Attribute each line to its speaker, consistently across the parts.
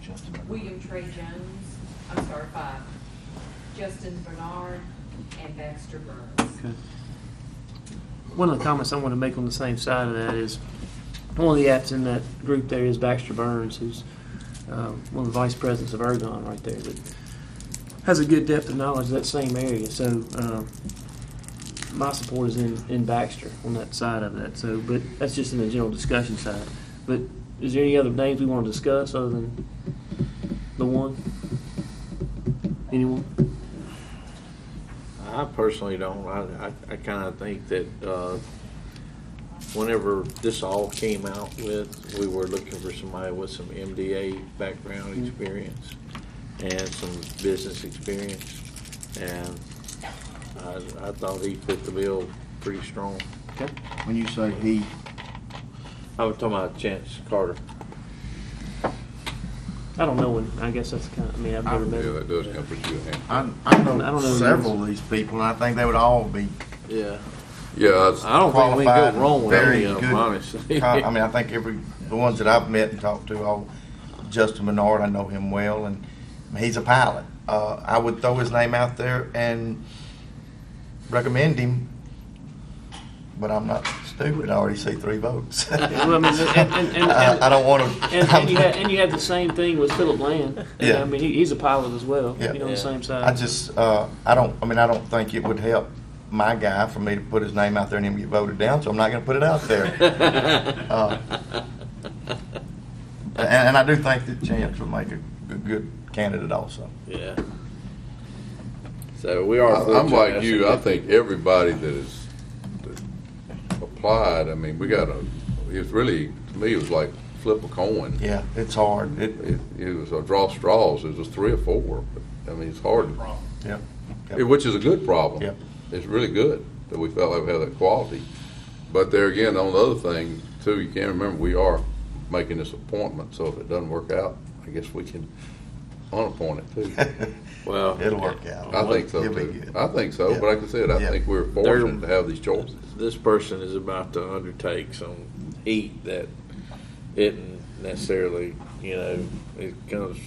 Speaker 1: Justin Bernard.
Speaker 2: Um, William Trey Jones, I'm sorry, five, Justin Bernard, and Baxter Burns.
Speaker 3: Okay. One of the comments I want to make on the same side of that is, one of the apps in that group there is Baxter Burns, who's um, one of the vice presidents of Ergon right there, that has a good depth of knowledge of that same area. So um, my support is in, in Baxter on that side of that. So, but that's just in the general discussion side. But is there any other names we want to discuss other than the one? Anyone?
Speaker 4: I personally don't. I, I, I kind of think that, uh, whenever this all came out with, we were looking for somebody with some MDA background experience and some business experience. And I, I thought he fit the bill pretty strong.
Speaker 3: Okay.
Speaker 1: When you say he,
Speaker 4: I was talking about Chance Carter.
Speaker 3: I don't know when. I guess that's kind of. I mean, I've
Speaker 5: Yeah,
Speaker 3: never met.
Speaker 5: that
Speaker 3: him.
Speaker 5: does come from you.
Speaker 1: I, I
Speaker 3: I
Speaker 1: know
Speaker 3: don't know who
Speaker 1: several of these people, and I think they would all be
Speaker 4: Yeah.
Speaker 5: Yeah, I was-
Speaker 4: I don't think we can
Speaker 1: qualified,
Speaker 4: go wrong with
Speaker 1: very
Speaker 4: any of
Speaker 1: good.
Speaker 4: them, honestly.
Speaker 1: co- I mean, I think every, the ones that I've met and talked to, all, Justin Menard, I know him well, and he's a pilot. Uh, I would throw his name out there and recommend him, but I'm not stupid, I already see three votes.
Speaker 3: Well, I mean, and- and- and-
Speaker 1: I I don't want to.
Speaker 3: And, and, you had, and you had the same thing with Philip Land. And,
Speaker 1: Yeah.
Speaker 3: I mean, he, he's a pilot as well.
Speaker 1: Yeah.
Speaker 3: You know, on
Speaker 4: Yeah.
Speaker 3: the same side.
Speaker 1: I just, uh, I don't, I mean, I don't think it would help my guy for me to put his name out there and him get voted down, so I'm not gonna put it out there. Uh, And, and I do think that Chance would make a g- good candidate also.
Speaker 4: Yeah. So we are.
Speaker 5: I- I'm like
Speaker 4: fortunate.
Speaker 5: you, I think everybody that is, that applied, I mean, we got a, it's really, to me, it was like flip a coin.
Speaker 1: Yeah, it's hard. It,
Speaker 5: It, it was a draw straws, it was three or four, but, I mean, it's hard,
Speaker 1: yeah.
Speaker 5: It- which is a good problem.
Speaker 1: Yep.
Speaker 5: It's really good that we felt like we had that quality. But there again, on the other thing, too, you can't remember, we are making this appointment, so if it doesn't work out, I guess we can unappoint it too.
Speaker 4: Well,
Speaker 1: It'll work out.
Speaker 5: I think so
Speaker 1: It'll be
Speaker 5: too.
Speaker 1: good.
Speaker 5: I think so,
Speaker 1: Yeah.
Speaker 5: but like I said, I
Speaker 1: Yeah.
Speaker 5: think we're
Speaker 4: They're-
Speaker 5: fortunate to have these choices.
Speaker 4: this person is about to undertake some heat that isn't necessarily, you know, it comes,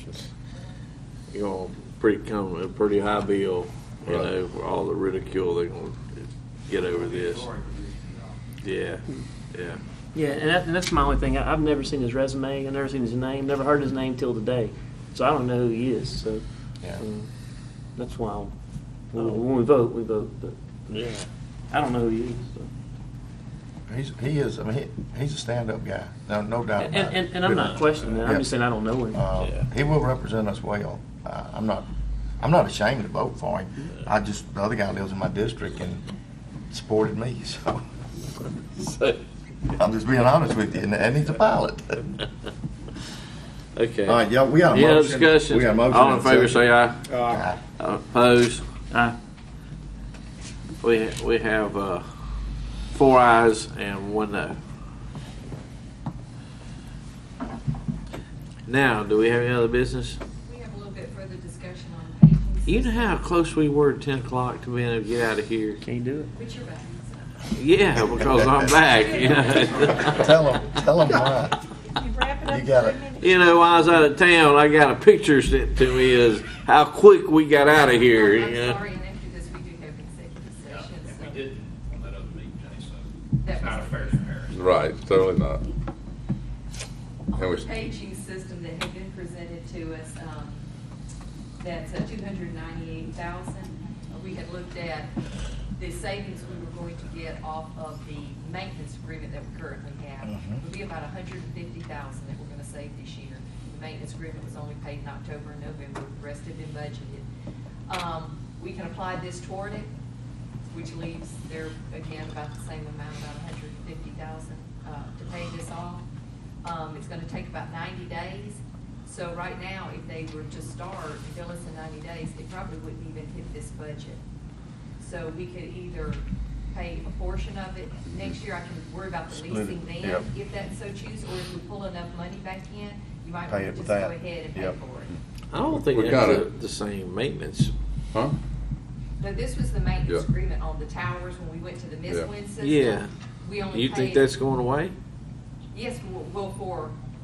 Speaker 4: you know, pretty come a pretty high bill, you
Speaker 5: Right.
Speaker 4: know, for all the ridicule they're gonna get over this. Yeah, yeah.
Speaker 3: yeah, and, that, and that's my only thing. I, I've never seen his resume. I've never seen his name. Never heard his name till today. So I don't know who he is. So
Speaker 1: Yeah.
Speaker 3: um, that's why I'll- when, we- when we vote, we vote. But
Speaker 4: Yeah.
Speaker 3: I don't know who he is. So.
Speaker 1: He's, he is, I mean, he, he's a stand-up guy. No, no doubt
Speaker 3: And,
Speaker 1: about it.
Speaker 3: and, and I'm not questioning that. I'm
Speaker 1: Yeah.
Speaker 3: just saying I don't know him.
Speaker 1: Uh,
Speaker 4: Yeah.
Speaker 1: He will represent us well. Uh, I'm not, I'm not ashamed to vote for him. I just, the other guy lives in my district and supported me, so
Speaker 4: So,
Speaker 1: I'm just being honest with you, and, and he's a pilot.
Speaker 4: okay.
Speaker 1: All right, y'all, we got a
Speaker 4: Any other
Speaker 1: motion.
Speaker 4: discussion?
Speaker 1: We got a motion.
Speaker 4: All in
Speaker 1: and a
Speaker 4: favor,
Speaker 1: second.
Speaker 4: say aye.
Speaker 1: Aye.
Speaker 4: Opposed?
Speaker 3: Aye.
Speaker 4: We, we have, uh, four ayes and one no. Now, do we have any other business?
Speaker 2: We have a little bit further discussion on pages.
Speaker 4: You know how close we were to ten o'clock to being able to get out of here?
Speaker 3: Can't do it.
Speaker 2: Put your buttons up.
Speaker 4: Yeah, because I'm back, you know.
Speaker 1: Tell him, tell him why.
Speaker 6: You wrap it
Speaker 1: You
Speaker 6: up in
Speaker 1: got
Speaker 6: three
Speaker 1: it.
Speaker 6: minutes.
Speaker 4: You know, while I was out of town, I got a picture sent to me as how quick we got out of
Speaker 2: I'm
Speaker 4: here, you know.
Speaker 2: sorry, and after this, we do have executive session,
Speaker 7: And
Speaker 2: so.
Speaker 7: we didn't on that other meeting, Jay, so
Speaker 2: That
Speaker 7: it's not a
Speaker 2: was-
Speaker 7: fair comparison.
Speaker 5: Right, totally not. And
Speaker 2: On
Speaker 5: we-
Speaker 2: the paging system that had been presented to us, um, that's two hundred ninety-eight thousand. We had looked at the savings we were going to get off of the maintenance agreement that we currently have.
Speaker 1: Mhm.
Speaker 2: It would be about hundred and fifty thousand that we're gonna save this year. The maintenance agreement was only paid in October and November, the rest had been budgeted. Um, We can apply this toward it, which leaves there again about the same amount, about hundred and fifty thousand, uh, to pay this off. Um, it's gonna take about ninety days, so right now, if they were to start, bill us in ninety days, it probably wouldn't even hit this budget. So we could either pay a portion of it, next year I can worry about the
Speaker 1: Split it,
Speaker 2: leasing then,
Speaker 1: yep.
Speaker 2: if that so choose, or if we pull enough money back in, you might want
Speaker 1: Pay
Speaker 2: to
Speaker 1: it with
Speaker 2: just go
Speaker 1: that,
Speaker 2: ahead and pay for
Speaker 1: yep.
Speaker 2: it.
Speaker 4: I don't think
Speaker 5: We gotta-
Speaker 4: that's the- the same maintenance.
Speaker 5: Huh?
Speaker 2: Now, this was the maintenance
Speaker 5: Yeah.
Speaker 2: agreement on the towers when we went to the Miss
Speaker 5: Yeah.
Speaker 2: Wind system.
Speaker 4: Yeah.
Speaker 2: We only
Speaker 4: You think
Speaker 2: paid-
Speaker 4: that's going away?
Speaker 2: Yes, well, well, for